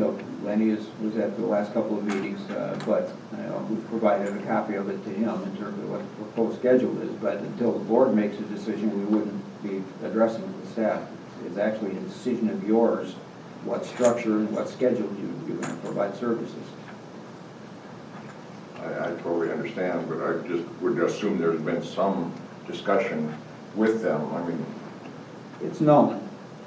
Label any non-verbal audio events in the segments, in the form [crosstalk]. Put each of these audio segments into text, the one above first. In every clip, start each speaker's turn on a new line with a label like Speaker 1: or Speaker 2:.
Speaker 1: Lenny is, was at the last couple of meetings, uh, but, you know, we've provided a copy of it to him in terms of what the proposed schedule is, but until the board makes a decision, we wouldn't be addressing it with staff. It's actually a decision of yours, what structure and what schedule you, you're gonna provide services.
Speaker 2: I, I totally understand, but I just would assume there's been some discussion with them. I mean,
Speaker 1: It's known,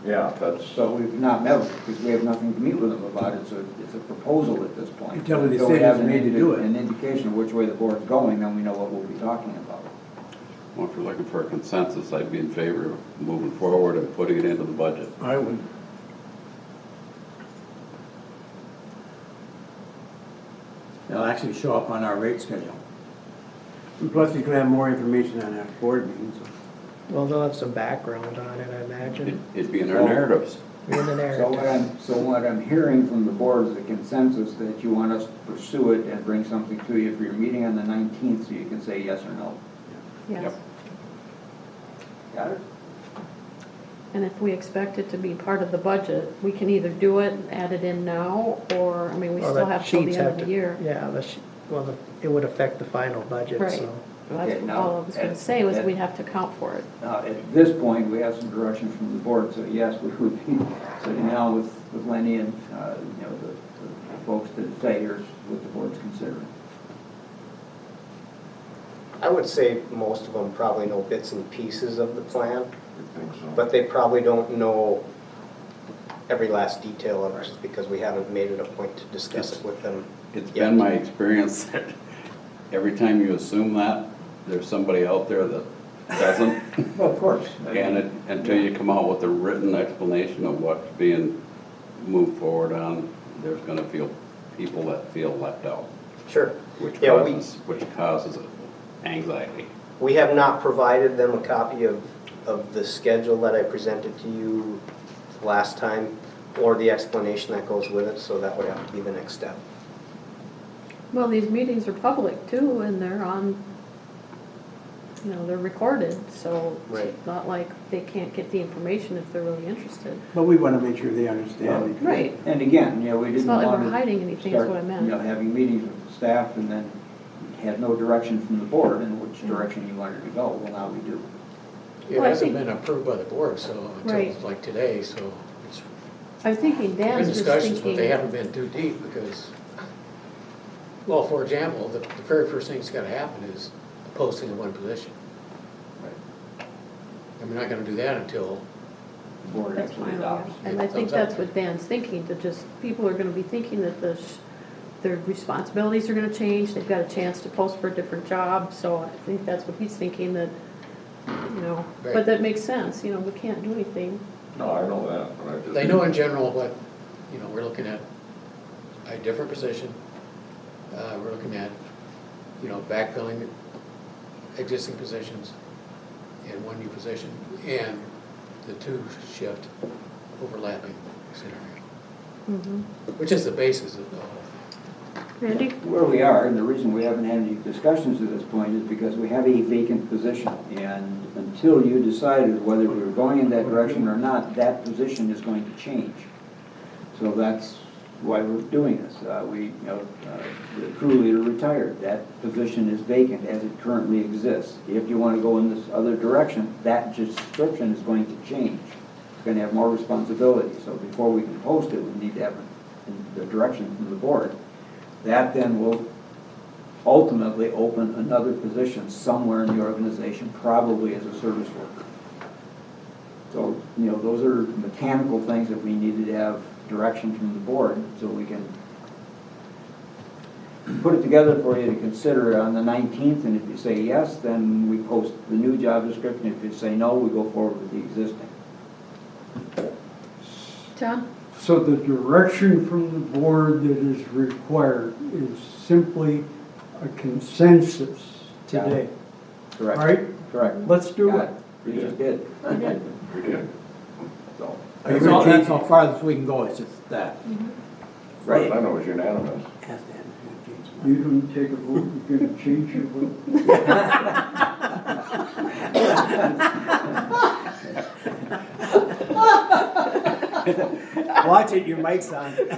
Speaker 2: yeah, that's,
Speaker 1: so we've not met, because we have nothing to meet with them about it, so it's a proposal at this point.
Speaker 3: Until the
Speaker 1: we have
Speaker 3: decision's
Speaker 1: an
Speaker 3: made to
Speaker 1: indi-
Speaker 3: do it.
Speaker 1: An indication of which way the board's going, then we know what we'll be talking about.
Speaker 4: Well, if you're looking for a consensus, I'd be in favor of moving forward and putting it into the budget.
Speaker 3: I would.
Speaker 5: It'll actually show up on our rate schedule.
Speaker 3: And Plus, you can have more information on that board meeting, so.
Speaker 6: Well, they'll have some background on it, I
Speaker 4: It-
Speaker 6: imagine,
Speaker 4: It'd be in our narratives.
Speaker 6: in the
Speaker 1: So uh, what
Speaker 6: narrative.
Speaker 1: I'm, so what I'm hearing from the board is a consensus that you want us to pursue it and bring something to you for your meeting on the nineteenth, so you can say yes or no.
Speaker 4: Yep.
Speaker 7: Yes,
Speaker 1: Got it?
Speaker 7: and if we expect it to be part of the budget, we can either do it, add it in now, or, I mean, we
Speaker 6: Well,
Speaker 7: still
Speaker 6: the
Speaker 7: have till the
Speaker 6: sheets
Speaker 7: end
Speaker 6: have
Speaker 7: of the
Speaker 6: to-
Speaker 7: year.
Speaker 6: Yeah, the, sh- well, the- it would affect the final budget,
Speaker 7: Right.
Speaker 6: so.
Speaker 7: Well, That's
Speaker 1: Okay,
Speaker 7: what
Speaker 1: now,
Speaker 7: all I was gonna
Speaker 1: at-
Speaker 7: say, was
Speaker 1: at-
Speaker 7: we'd have to account for it.
Speaker 1: Now, Uh, at this point, we have some direction from the board, so yes, we would be [laughs] sitting down with, with Lenny and, uh, you know, the, the folks to say here's what the board's considering.
Speaker 8: I would say most of them probably know bits and pieces of the plan,
Speaker 2: I think so.
Speaker 8: but they probably don't know every last detail of it, just because we haven't made it a point to discuss it with them.
Speaker 4: It's
Speaker 8: yet.
Speaker 4: been my experience that every time you assume that, there's somebody out there that doesn't.
Speaker 8: [laughs]
Speaker 1: Well, of course.
Speaker 4: And it, until you come out with a written explanation of what's being moved forward on, there's gonna feel, people that feel left out,
Speaker 8: Sure.
Speaker 4: which
Speaker 8: Yeah, we-
Speaker 4: causes, which causes anxiety.
Speaker 8: We have not provided them a copy of, of the schedule that I presented to you last time, or the explanation that goes with it, so that would have to be the next step.
Speaker 7: Well, these meetings are public too, and they're on, you know, they're recorded, so
Speaker 8: Right.
Speaker 7: it's not like they can't get the information if they're really interested.
Speaker 3: But we want to make sure they understand. because-
Speaker 7: Right,
Speaker 1: And again, you know, we
Speaker 7: It's
Speaker 1: didn't want
Speaker 7: not
Speaker 1: to.
Speaker 7: like we're hiding anything, is
Speaker 1: start,
Speaker 7: what I meant.
Speaker 1: You know, having meetings with the staff and then had no direction from the board in which
Speaker 7: Mhm.
Speaker 1: direction you wanted to go, well, now we do.
Speaker 9: It
Speaker 7: Well, I
Speaker 9: hasn't
Speaker 7: think-
Speaker 9: been approved by the board, so,
Speaker 7: Right.
Speaker 9: until like today, so it's
Speaker 7: I was thinking
Speaker 9: been
Speaker 7: Dan's just
Speaker 9: discussions, but they
Speaker 7: thinking,
Speaker 9: haven't been too deep because, well, for example, the, the very first thing that's gotta happen is the posting of one position. And we're not gonna do that until,
Speaker 1: The board
Speaker 7: that's
Speaker 1: actually
Speaker 7: fine,
Speaker 1: adopts.
Speaker 7: and I think
Speaker 9: Thumbs up.
Speaker 7: that's what Dan's thinking, to just, people are gonna be thinking that the, sh- their responsibilities are gonna change, they've got a chance to post for a different job, so I think that's what he's thinking, that, you know, but
Speaker 9: Right.
Speaker 7: that makes sense, you know, we can't do anything.
Speaker 2: No, I know that, but I just.
Speaker 9: they know in general what, you know, we're looking at a different position. Uh, we're looking at, you know, backfilling existing positions and one new position and the two shift overlapping scenario. Which is the basis of the whole.
Speaker 7: Randy?
Speaker 1: Where we are, and the reason we haven't had any discussions to this point is because we have a vacant position. And until you decided whether we were going in that direction or not, that position is going to change. So that's why we're doing this. Uh, We, you know, uh, the crew leader retired, that position is vacant as it currently exists. If you want to go in this other direction, that description is going to change. It's going to have more responsibility, so before we can post it, we need to have the direction from the board. That then will ultimately open another position somewhere in the organization, probably as a service worker. So, you know, those are mechanical things that we needed to have direction from the board so we can put it together for you to consider on the nineteenth, and if you say yes, then we post the new job description. If you say no, we go forward with the existing.
Speaker 7: John?
Speaker 10: So the direction from the board that is required is simply a consensus today,
Speaker 1: Correct.
Speaker 10: right?
Speaker 1: Correct.
Speaker 10: Let's do it.
Speaker 1: Got You just did.
Speaker 7: I did.
Speaker 2: We did.
Speaker 1: So,
Speaker 5: That's all, that's how far as we can go, it's just that.
Speaker 1: Right.
Speaker 2: I know it was unanimous.
Speaker 3: Has to have a change.
Speaker 10: You don't take a vote, you're gonna change your vote.
Speaker 3: [laughs] Watch it, your mic's on.